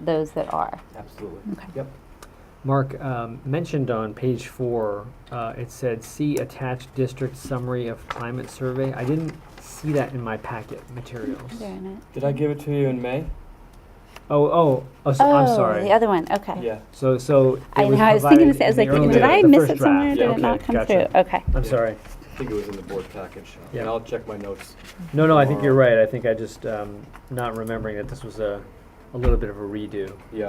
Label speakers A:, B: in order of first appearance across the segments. A: those that are.
B: Absolutely.
A: Okay.
B: Yep.
C: Mark, um, mentioned on page four, uh, it said, see attached district summary of climate survey. I didn't see that in my packet materials.
A: They're in it.
B: Did I give it to you in May?
C: Oh, oh, oh, so, I'm
A: Oh,
C: sorry.
A: The other one, okay.
B: Yeah.
C: So, so. it
A: I know, I was
C: provided
A: thinking this, I was
C: in the
A: like, wait,
C: earlier-
A: did I
C: the
A: miss
C: first
A: it somewhere?
C: draft.
A: Did
B: Yeah,
A: it not
C: okay,
A: come through?
C: gotcha.
A: Okay.
C: I'm sorry.
B: I think it was in the board package.
C: Yeah.
B: And I'll check my notes.
C: No, no, I think you're
B: Tomorrow.
C: right. I think I just, um, not remembering that this was a, a little bit of a redo.
B: Yeah.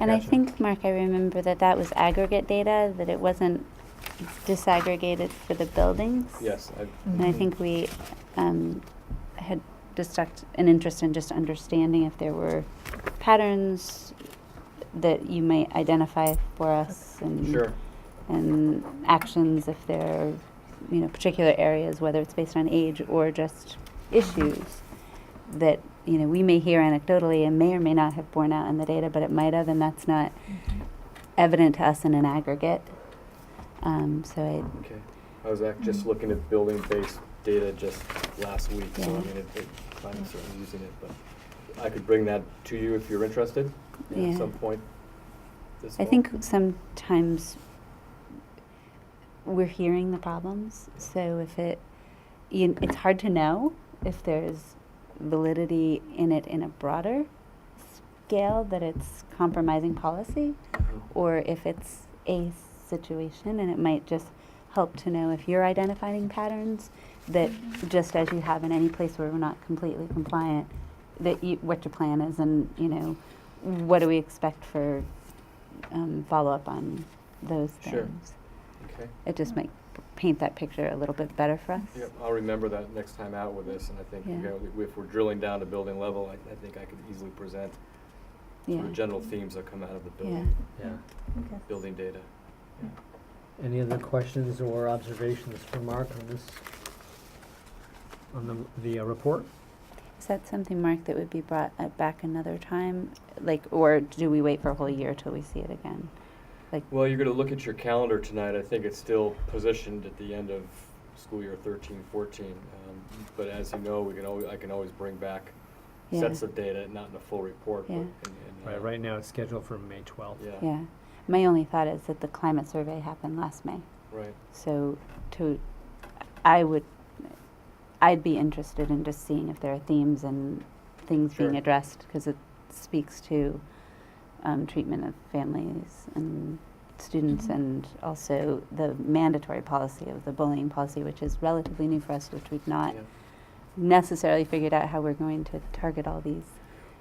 A: And I
C: Gotcha.
A: think, Mark, I remember that that was aggregate data, that it wasn't disaggregated for the buildings.
B: Yes. I,
A: And I think we um, had just talked- an interest in just understanding if there were patterns that you might identify for us and
B: sure.
A: and actions if there are you know particular areas whether it's based on age or just issues that you know we may hear anecdotally and may or may not have borne out in the data but it might have and that's not evident to us in an aggregate um, so I,
B: Okay. I was act- just looking at building-based data just last week, so I
A: Yeah.
B: mean, it, it, I'm certainly using it, but I could bring that to you if you're interested
A: Yeah.
B: at some point. this
A: I
B: fall.
A: think sometimes we're hearing the problems so if it you, it's hard to know if there's validity in it in a broader scale that it's compromising policy
B: Mhm.
A: or if it's a situation and it might just help to know if you're identifying patterns that just as you have in any place where we're not completely compliant that you, what your plan is and you know what do we expect for um, follow-up on those
B: Sure.
A: things
B: Okay.
A: it just might paint that picture a little bit better for us
B: Yep, I'll remember that next time out with this, and I think, you
A: Yeah.
B: know, if we're drilling down to building level, I, I think I could easily present
A: yeah
B: sort of general themes that come out of the
A: yeah
B: building,
C: Yeah.
B: building data.
C: Any other questions or observations for Mark on this, on the, the uh, report?
A: is that something mark that would be brought uh, back another time like or do we wait for a whole year till we see it again
B: Well, you're gonna look at your calendar tonight, I think it's still positioned at the end of school year thirteen, fourteen. Um, But as you know, we can always, I can always bring back
A: Yeah.
B: sets of data, not in a full report, but
A: Yeah.
B: in, in. uh,
C: Right, right now it's scheduled for May twelfth.
B: Yeah,
A: Yeah. My only thought is that the climate survey happened last May.
B: right,
A: So to I would I'd be interested in just seeing if there are themes and things being
B: Sure.
A: addressed because it speaks to um, treatment of families and students
B: Mm-hmm.
A: and also the mandatory policy of the bullying policy which is relatively new for us which we've not
B: yeah.
A: necessarily figured out how we're going to target all these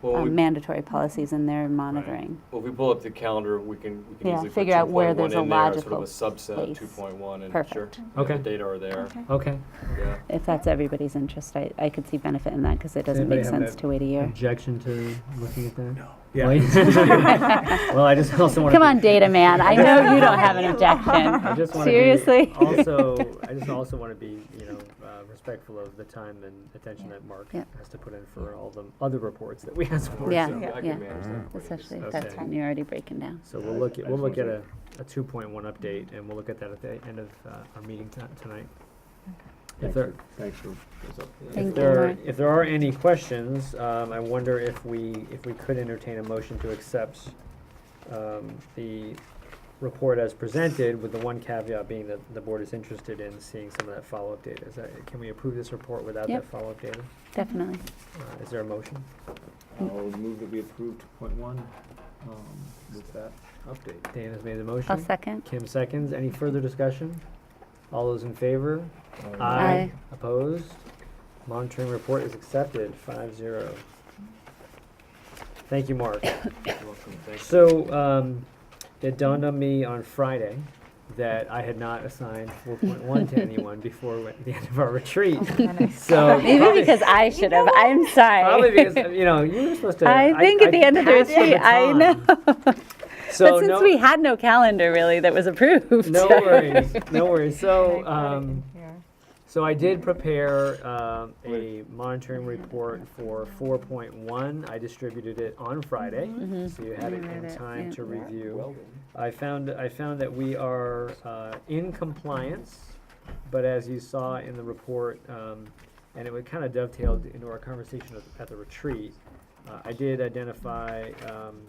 B: Well,
A: um,
B: we-
A: mandatory policies and their monitoring
B: well, if we pull up the calendar, we can, we can
A: Yeah,
B: easily put
A: figure out where
B: 2.1
A: there's a
B: in there as sort of
A: logical
B: a subset, of
A: place.
B: two point one, and sure,
A: perfect
B: yeah, the
C: Okay.
B: data are there,
C: Okay.
B: yeah.
A: If that's everybody's interest, I, I could see benefit in that because it doesn't
C: anybody
A: make
C: have
A: sense
C: that
A: to wait a year.
C: Objection to looking at that? No.
A: Come
C: Well, I just also want to.
A: on, data man, I know you don't have an objection.
C: I just want
A: Seriously?
C: to be also. I just also want to be, you know, uh, respectful of the time and attention that Mark
A: Yeah.
C: has to put in for all the other reports that we ask for.
A: Yeah.
C: So,
B: I
A: yeah.
B: can manage that. for you.
A: Especially if
C: Okay.
A: that's when you're already breaking down.
C: so we'll look at we'll look at a, a 2.1 update, and we'll look at that at the end of uh, our meeting ti- tonight. If there,
D: Thanks for.
A: Thank
C: if
A: you,
C: there,
A: Mark.
C: if there are any questions, um, I wonder if we, if we could entertain a motion to accept, um, the report as presented, with the one caveat being that the board is interested in seeing some of that follow-up data. Is that, can we approve this report without that
A: Yep.
C: follow-up data?
A: Definitely.
C: Uh, is there a motion?
D: I'll move that we approve two point one, um, with that update.
C: Dan has made the
A: I'll
C: motion.
A: second.
C: Kim seconds. Any further discussion? All those in favor?
A: Aye.
C: Opposed? Monitoring report is accepted, five zero. Thank you, Mark.
B: You're welcome. Thank you.
C: So, um, it dawned on me on Friday that I had not assigned four point one to anyone before we- the end of our retreat. So.
A: Maybe
C: probably-
A: because I should have, I'm
C: Probably
A: sorry.
C: because, uh, you know, you were supposed to.
A: I think at the end of the
C: passed
A: retreat, I
C: baton.
A: know.
C: So
A: But
C: no,
A: since we had no calendar really that was approved.
C: no worries, no worries. So, um, so I did prepare, um, a monitoring report for four point one. I distributed it on Friday, so you had
A: I
C: it
A: Mm-hmm. read
C: in
A: it,
C: time
A: yeah.
C: to review.
B: Well done.
C: I found, I found that we are uh, in compliance, but as you saw in the report, um, and it kind of dovetailed into our conversation at- at the retreat, uh, I did identify um,